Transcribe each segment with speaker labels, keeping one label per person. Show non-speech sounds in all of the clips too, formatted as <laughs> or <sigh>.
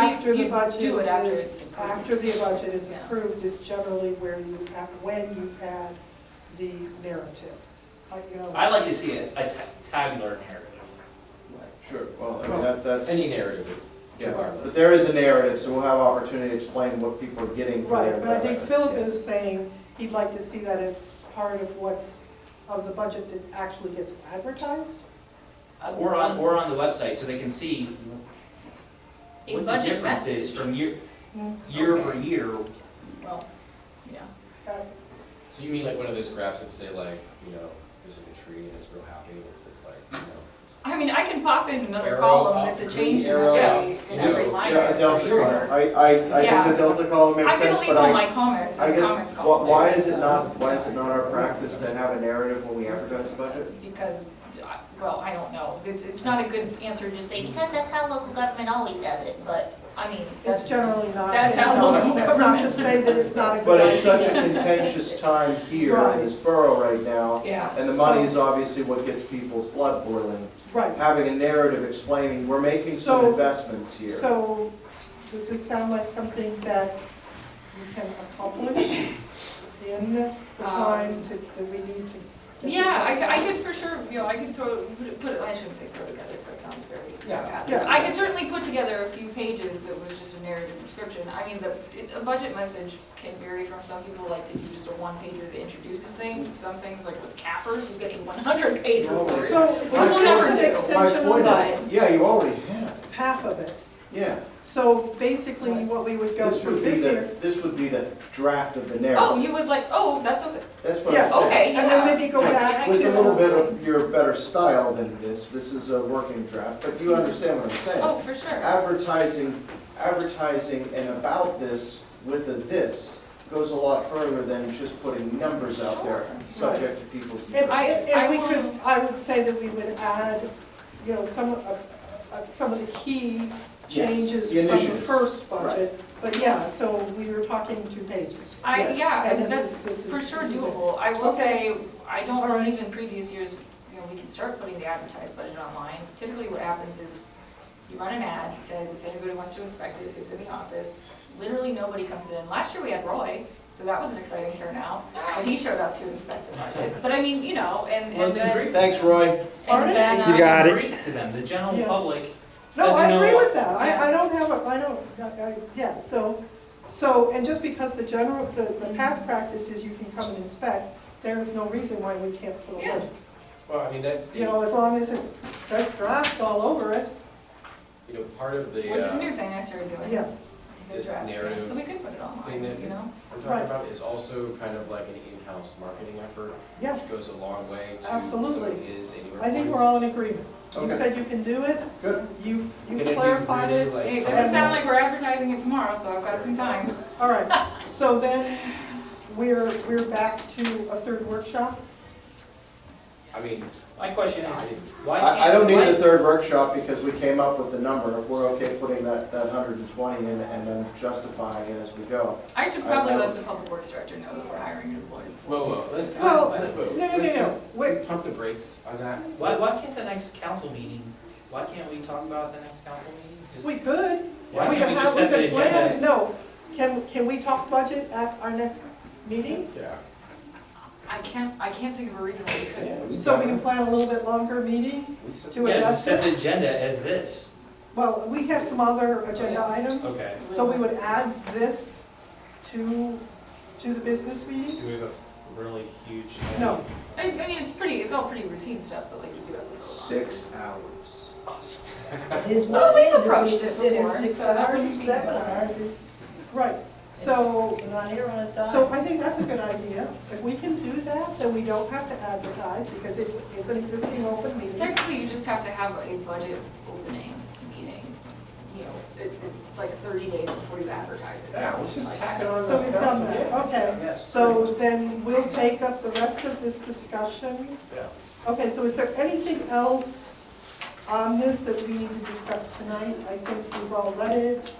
Speaker 1: after the
Speaker 2: You
Speaker 1: budget
Speaker 2: do it after
Speaker 1: is-
Speaker 2: it's approved.
Speaker 1: After the budget is
Speaker 2: Yeah.
Speaker 1: approved is generally where you, add- when you add the narrative. Like, you know,
Speaker 3: I like to see a, a ta- tabular narrative.
Speaker 4: Sure, well, I mean, that, that's,
Speaker 5: Any narrative,
Speaker 4: yeah,
Speaker 5: regardless.
Speaker 4: but there is a narrative, so we'll have opportunity to explain what people are getting for their
Speaker 1: Right, but I think Philip
Speaker 4: investment.
Speaker 1: is saying he'd like to see that as part of what's, of the budget that actually gets advertised.
Speaker 2: Oh.
Speaker 3: Or on, or on the website, so they can see
Speaker 2: A
Speaker 3: what the
Speaker 2: budget
Speaker 3: difference is
Speaker 2: message.
Speaker 3: from year,
Speaker 1: Hmm.
Speaker 3: year
Speaker 2: Okay.
Speaker 3: over year.
Speaker 2: Well, yeah.
Speaker 1: Uh,
Speaker 5: So you mean like one of those graphs that say like, you know, there's like a tree and it's real happy and it's, it's like, you know.
Speaker 2: I mean, I can pop in another
Speaker 5: Arrow
Speaker 2: column
Speaker 5: up,
Speaker 2: that's a
Speaker 5: green
Speaker 2: change in
Speaker 5: arrow
Speaker 2: every,
Speaker 5: up,
Speaker 2: in
Speaker 5: you
Speaker 2: every
Speaker 5: know.
Speaker 2: line
Speaker 4: Yeah, a
Speaker 2: item,
Speaker 4: Delta
Speaker 2: for
Speaker 4: column.
Speaker 2: sure.
Speaker 4: I, I, I
Speaker 2: Yeah.
Speaker 4: think the Delta column makes
Speaker 2: I
Speaker 4: sense, but I.
Speaker 2: can leave all my comments
Speaker 4: I
Speaker 2: in the
Speaker 4: guess,
Speaker 2: comments
Speaker 4: wh-
Speaker 2: column.
Speaker 4: Why is it not, why is it not our practice to have a narrative when we advertise a budget?
Speaker 2: Because, I- well, I don't know, it's, it's not a good answer to just say,
Speaker 4: Mm-hmm.
Speaker 2: because,
Speaker 6: Because that's how local government always does it, but
Speaker 2: I mean,
Speaker 1: It's
Speaker 2: that's,
Speaker 1: generally not.
Speaker 2: that's how
Speaker 1: no,
Speaker 2: local
Speaker 1: That's not to
Speaker 2: government-
Speaker 1: say that it's not a
Speaker 4: But it's
Speaker 1: good
Speaker 4: such a
Speaker 1: idea.
Speaker 4: contentious time here in this borough right now,
Speaker 2: yeah.
Speaker 4: and the money is obviously what gets people's blood boiling.
Speaker 1: Right,
Speaker 4: Having a narrative explaining, we're making some
Speaker 1: So-
Speaker 4: investments here.
Speaker 1: so does this sound like something that we can accomplish in the time to, that we need to? get this
Speaker 2: Um, Yeah, I,
Speaker 1: out?
Speaker 2: c- I could for sure, you know, I could throw, put it- put it, I shouldn't say throw together, because that sounds very
Speaker 5: Yeah.
Speaker 2: passive.
Speaker 1: Yeah.
Speaker 2: I could certainly put together a few pages that was just a narrative description. I mean, the, it- a budget message can vary from, some people like to do just a one pager that introduces things. Some things, like with CAFRs, you get a one hundred
Speaker 4: Normally-
Speaker 2: pager.
Speaker 1: So, so
Speaker 2: Well,
Speaker 1: just an
Speaker 2: it's-
Speaker 4: My
Speaker 1: extension of
Speaker 4: point
Speaker 1: that,
Speaker 4: is, yeah, you already have,
Speaker 1: half of it.
Speaker 4: yeah.
Speaker 1: So basically, what we would go
Speaker 4: This
Speaker 1: through
Speaker 4: would be
Speaker 1: this
Speaker 4: the,
Speaker 1: year,
Speaker 4: this would be the draft of the narrative.
Speaker 2: Oh, you would like, oh, that's okay,
Speaker 4: That's what
Speaker 1: Yes.
Speaker 4: I'm saying.
Speaker 2: okay,
Speaker 1: and then
Speaker 2: yeah.
Speaker 1: maybe go back to.
Speaker 4: With a little bit of your better style than this, this is a working draft, but you understand what I'm saying.
Speaker 2: Oh, for sure.
Speaker 4: Advertising, advertising and about this with a this goes a lot further than just putting numbers out there, subject to people's.
Speaker 1: And,
Speaker 2: I-
Speaker 1: and and we
Speaker 2: I
Speaker 1: could,
Speaker 2: will-
Speaker 1: I would say that we would add, you know, some of, uh, some of the key
Speaker 4: Yes,
Speaker 1: changes
Speaker 4: the
Speaker 1: from the
Speaker 4: initiatives,
Speaker 1: first
Speaker 4: right.
Speaker 1: budget. But yeah, so we were talking two pages.
Speaker 2: I,
Speaker 4: Yes.
Speaker 2: yeah,
Speaker 1: And this
Speaker 2: that's
Speaker 1: is- this is-
Speaker 2: for sure
Speaker 1: this is it.
Speaker 2: doable. I will
Speaker 1: Okay.
Speaker 2: say, I don't
Speaker 1: All right.
Speaker 2: believe in previous years, you know, we can start putting the advertised budget online. Typically what happens is you run an ad, it says if anybody wants to inspect it, it's in the office. Literally nobody comes in. Last year we had Roy, so that was an exciting turnout. And he showed up to inspect the budget. But I mean, you know, and,
Speaker 3: Well,
Speaker 2: and
Speaker 3: it's
Speaker 2: then.
Speaker 3: great.
Speaker 4: Thanks, Roy.
Speaker 2: And
Speaker 1: Pardon?
Speaker 2: then,
Speaker 7: You
Speaker 2: um,
Speaker 7: got it.
Speaker 3: Great to them, the general
Speaker 1: Yeah.
Speaker 3: public.
Speaker 1: No,
Speaker 3: Doesn't
Speaker 1: I
Speaker 3: know
Speaker 1: agree
Speaker 3: what-
Speaker 1: with that, I, I don't have a, I don't, I- I- yeah, so, so, and just because the general, the, the past practice is you can come and inspect, there is no reason why we can't put a
Speaker 2: Yeah.
Speaker 1: link.
Speaker 5: Well, I mean, that,
Speaker 1: You
Speaker 5: you
Speaker 1: know, as long as it says draft all over it,
Speaker 5: know, part of the,
Speaker 2: Which is a
Speaker 5: uh,
Speaker 2: new thing I started doing.
Speaker 1: yes.
Speaker 2: the
Speaker 5: This
Speaker 2: drafts thing.
Speaker 5: narrative
Speaker 2: So we could put it online,
Speaker 5: thing that-
Speaker 2: you know?
Speaker 5: we're
Speaker 1: Right.
Speaker 5: talking about is also kind of like an in-house marketing effort, which
Speaker 1: Yes,
Speaker 5: goes a long way to. so
Speaker 1: Absolutely.
Speaker 5: it Is anywhere.
Speaker 1: I think we're all in agreement. You
Speaker 4: Okay.
Speaker 1: said you can do it,
Speaker 4: Good.
Speaker 1: you've,
Speaker 5: And
Speaker 1: you've
Speaker 5: if you
Speaker 1: clarified
Speaker 5: really,
Speaker 1: it,
Speaker 5: like,
Speaker 2: It
Speaker 5: kind
Speaker 2: doesn't
Speaker 5: of-
Speaker 2: sound like we're advertising it tomorrow, so I've got some time.
Speaker 1: all right. So then, we're, we're back to a third workshop?
Speaker 5: I mean,
Speaker 3: My question is,
Speaker 5: I mean,
Speaker 3: why can't?
Speaker 4: I, I don't need
Speaker 3: why-
Speaker 4: the third workshop because we came up with the number. If we're okay putting that, that hundred and twenty in and then justifying it as we go.
Speaker 2: I should probably
Speaker 4: I-
Speaker 5: Uh,
Speaker 4: I-
Speaker 2: let the public works director know before hiring an employee.
Speaker 5: whoa, whoa, let's.
Speaker 1: Well,
Speaker 5: let's-
Speaker 1: no,
Speaker 5: let's-
Speaker 1: no, no, no, wait,
Speaker 5: let's Pump the brakes on that.
Speaker 3: Why, why can't the next council meeting, why can't we talk about the next council meeting? Just-
Speaker 1: we could.
Speaker 3: Why
Speaker 1: We
Speaker 3: can't
Speaker 1: can
Speaker 3: we
Speaker 1: have,
Speaker 3: just
Speaker 1: we
Speaker 3: set the
Speaker 1: can plan,
Speaker 3: agenda?
Speaker 1: no, can, can we talk budget at our next meeting?
Speaker 5: Yeah.
Speaker 2: I can't, I can't think of a reason why we couldn't.
Speaker 1: So we can plan a little bit longer meeting
Speaker 5: We said-
Speaker 1: to
Speaker 3: Yeah, just
Speaker 1: adjust
Speaker 3: set
Speaker 1: it?
Speaker 3: the agenda as this.
Speaker 1: Well, we have some other agenda items,
Speaker 3: Okay.
Speaker 1: so we would add this to, to the business meeting?
Speaker 3: Do we have a really
Speaker 1: <laughs>
Speaker 3: huge?
Speaker 1: No,
Speaker 2: I, I mean, it's pretty, it's all pretty routine stuff, but like you do have to. vote on it.
Speaker 4: Six hours.
Speaker 8: His
Speaker 2: Well,
Speaker 8: one
Speaker 2: we've
Speaker 8: is that we
Speaker 2: approached it
Speaker 8: consider
Speaker 2: before,
Speaker 8: six
Speaker 2: so that
Speaker 8: hours,
Speaker 2: wouldn't be-
Speaker 8: Seven hours,
Speaker 1: right, so,
Speaker 8: we're not here on a dime.
Speaker 1: so I think that's a good idea. If we can do that, then we don't have to advertise, because it's, it's an existing open meeting.
Speaker 2: Technically, you just have to have a budget opening meeting. You know, it's, it- it's like thirty days before you advertise it. or
Speaker 5: Yeah, let's
Speaker 2: something
Speaker 5: just
Speaker 2: like
Speaker 5: tack
Speaker 2: that.
Speaker 5: it on.
Speaker 1: So we've done that, okay.
Speaker 3: Yes.
Speaker 1: So then we'll take up the rest of this discussion.
Speaker 5: Yeah.
Speaker 1: Okay, so is there anything else on this that we need to discuss tonight? I think we've all read it.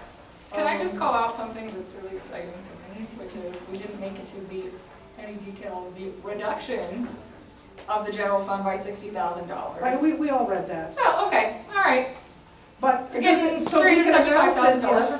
Speaker 2: Can I just
Speaker 1: Um,
Speaker 2: call out something that's really exciting to me, which is we didn't make it to the, any detail, the reduction of the general fund by sixty thousand dollars.
Speaker 1: I- we, we all read that,
Speaker 2: Oh, okay, all right.
Speaker 1: but.
Speaker 2: Again,
Speaker 1: So we can announce it,
Speaker 2: $375,000
Speaker 1: yes.